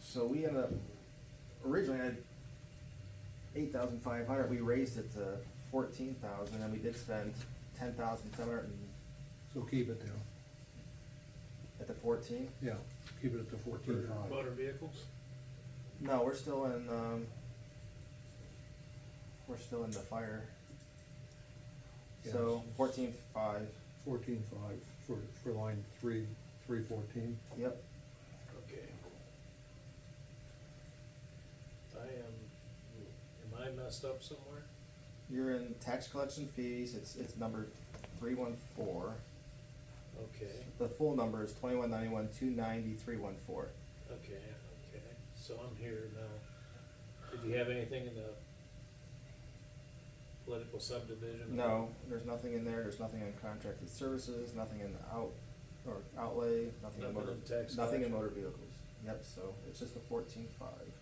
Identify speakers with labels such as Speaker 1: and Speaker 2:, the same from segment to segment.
Speaker 1: So we ended up, originally I had eight thousand five hundred, we raised it to fourteen thousand, and we did spend ten thousand seven hundred and,
Speaker 2: So keep it down,
Speaker 1: at the fourteen.
Speaker 2: yeah, keep it at the fourteen
Speaker 3: Motor
Speaker 2: five.
Speaker 3: vehicles?
Speaker 1: No, we're still in, um, we're still in the fire. So
Speaker 2: Yes.
Speaker 1: fourteen five,
Speaker 2: Fourteen five for, for line three, three fourteen.
Speaker 1: yep,
Speaker 3: Okay. I am, am I messed up somewhere?
Speaker 1: you're in tax collection fees, it's, it's number three one four.
Speaker 3: Okay,
Speaker 1: The full number is twenty-one ninety-one, two ninety, three one four.
Speaker 3: okay, okay, so I'm here now. Did you have anything in the political subdivision?
Speaker 1: No, there's nothing in there, there's nothing in contracted services, nothing in the out, or outlay, nothing in
Speaker 3: Nothing
Speaker 1: motor,
Speaker 3: in tax
Speaker 1: nothing in
Speaker 3: collection.
Speaker 1: motor vehicles. Yep, so it's just the fourteen five,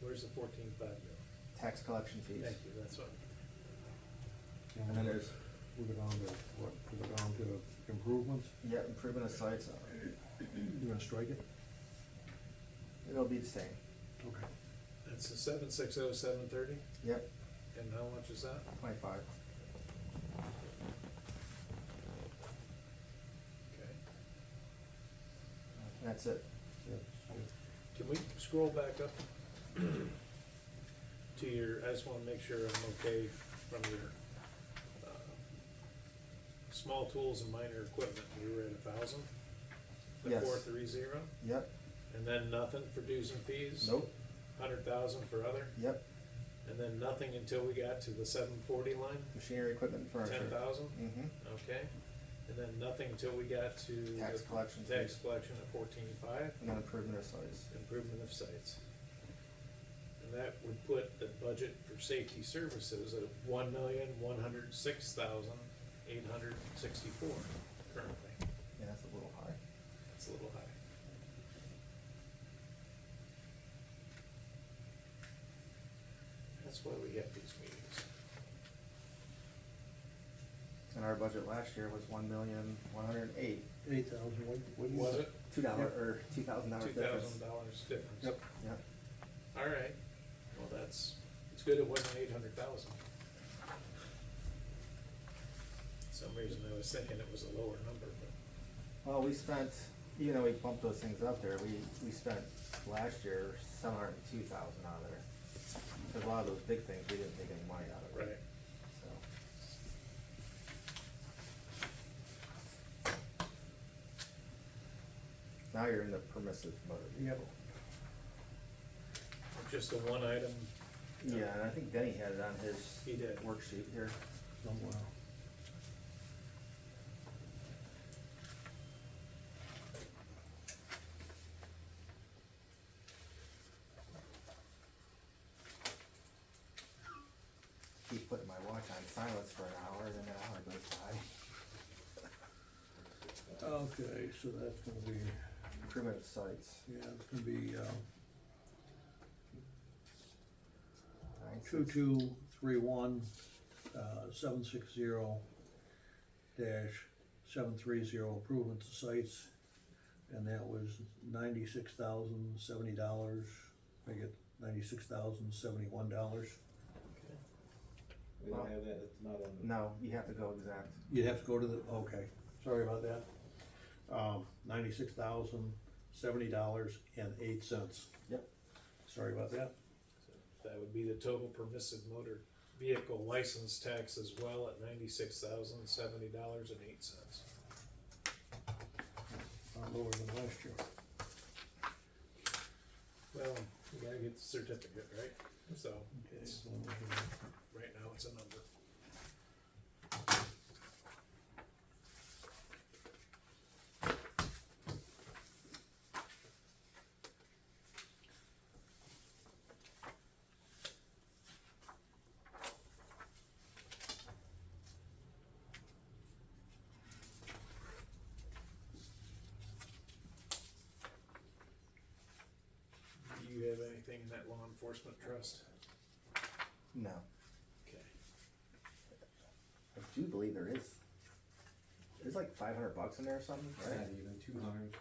Speaker 3: Where's the fourteen five go?
Speaker 1: tax collection fees.
Speaker 3: Thank you, that's what,
Speaker 1: And then there's,
Speaker 2: Move it on to, what, move it on to improvements,
Speaker 1: yeah, improvement of sites, uh,
Speaker 2: you gonna strike it?
Speaker 1: it'll be the same,
Speaker 2: Okay.
Speaker 3: that's the seven six oh seven thirty,
Speaker 1: yep,
Speaker 3: and how much is that?
Speaker 1: twenty-five.
Speaker 3: Okay.
Speaker 1: That's it,
Speaker 2: That's-
Speaker 3: Can we scroll back up to your, I just wanna make sure I'm okay from your, uh, small tools and minor equipment, you were at a thousand? The
Speaker 1: Yes.
Speaker 3: four three zero,
Speaker 1: yep,
Speaker 3: and then nothing for dues and fees?
Speaker 1: nope,
Speaker 3: Hundred thousand for other,
Speaker 1: yep,
Speaker 3: and then nothing until we got to the seven forty line,
Speaker 1: machinery, equipment, and furniture.
Speaker 3: ten thousand,
Speaker 1: Mm-hmm,
Speaker 3: okay? And then nothing until we got to. the
Speaker 1: Tax collection
Speaker 3: Tax
Speaker 1: fees.
Speaker 3: collection at fourteen five.
Speaker 1: and then improvement of sites,
Speaker 3: improvement of sites. And that would put the budget for safety services at one million, one hundred six thousand, eight hundred sixty-four currently.
Speaker 1: yeah, that's a little high.
Speaker 3: It's a little high. That's why we have these meetings.
Speaker 1: And our budget last year was one million, one hundred and eight,
Speaker 2: Eight thousand, what, what do you?
Speaker 3: Was it
Speaker 1: two dollar, or two thousand dollar
Speaker 3: two
Speaker 1: difference.
Speaker 3: thousand dollars difference?
Speaker 2: Yep,
Speaker 1: Yep.
Speaker 3: All right, well, that's, it's good it wasn't eight hundred thousand. Some reason I was thinking it was a lower number, but,
Speaker 1: Well, we spent, even though we bumped those things up there, we, we spent last year seven hundred and two thousand out of there. 'Cause a lot of those big things, we didn't take any money out of
Speaker 3: right.
Speaker 1: it, so. Now you're in the permissive motor
Speaker 2: Yep.
Speaker 1: vehicle.
Speaker 3: Just the one item,
Speaker 1: Yeah, and I think Denny had it on his
Speaker 3: He did.
Speaker 1: worksheet here.
Speaker 2: somewhere.
Speaker 1: Keep putting my watch on silence for an hour, then an hour goes by.
Speaker 2: Okay, so that's gonna be.
Speaker 1: Primitive sites.
Speaker 2: Yeah, it's gonna be, uh,
Speaker 1: nine, six-
Speaker 2: two-two-three-one, uh, seven-six-zero dash seven-three-zero improvement to sites. And that was ninety-six thousand seventy dollars, I get ninety-six thousand seventy-one dollars.
Speaker 4: We don't have that, it's not on the.
Speaker 1: No, you have to go exact.
Speaker 2: You'd have to go to the, okay, sorry about that. Um, ninety-six thousand seventy dollars and eight cents.
Speaker 1: Yep.
Speaker 2: Sorry about that.
Speaker 3: that would be the total permissive motor vehicle license tax as well at ninety-six thousand, seventy dollars and eight cents.
Speaker 2: Uh, Lower than last year.
Speaker 3: Well, you gotta get the certificate, right? So,
Speaker 2: Okay,
Speaker 3: it's,
Speaker 2: so we're gonna-
Speaker 3: right now, it's a number. Do you have anything in that law enforcement trust?
Speaker 1: No,
Speaker 3: Okay.
Speaker 1: I do believe there is. There's like five hundred bucks in there or something,
Speaker 4: It's
Speaker 1: right?
Speaker 4: not even two hundred.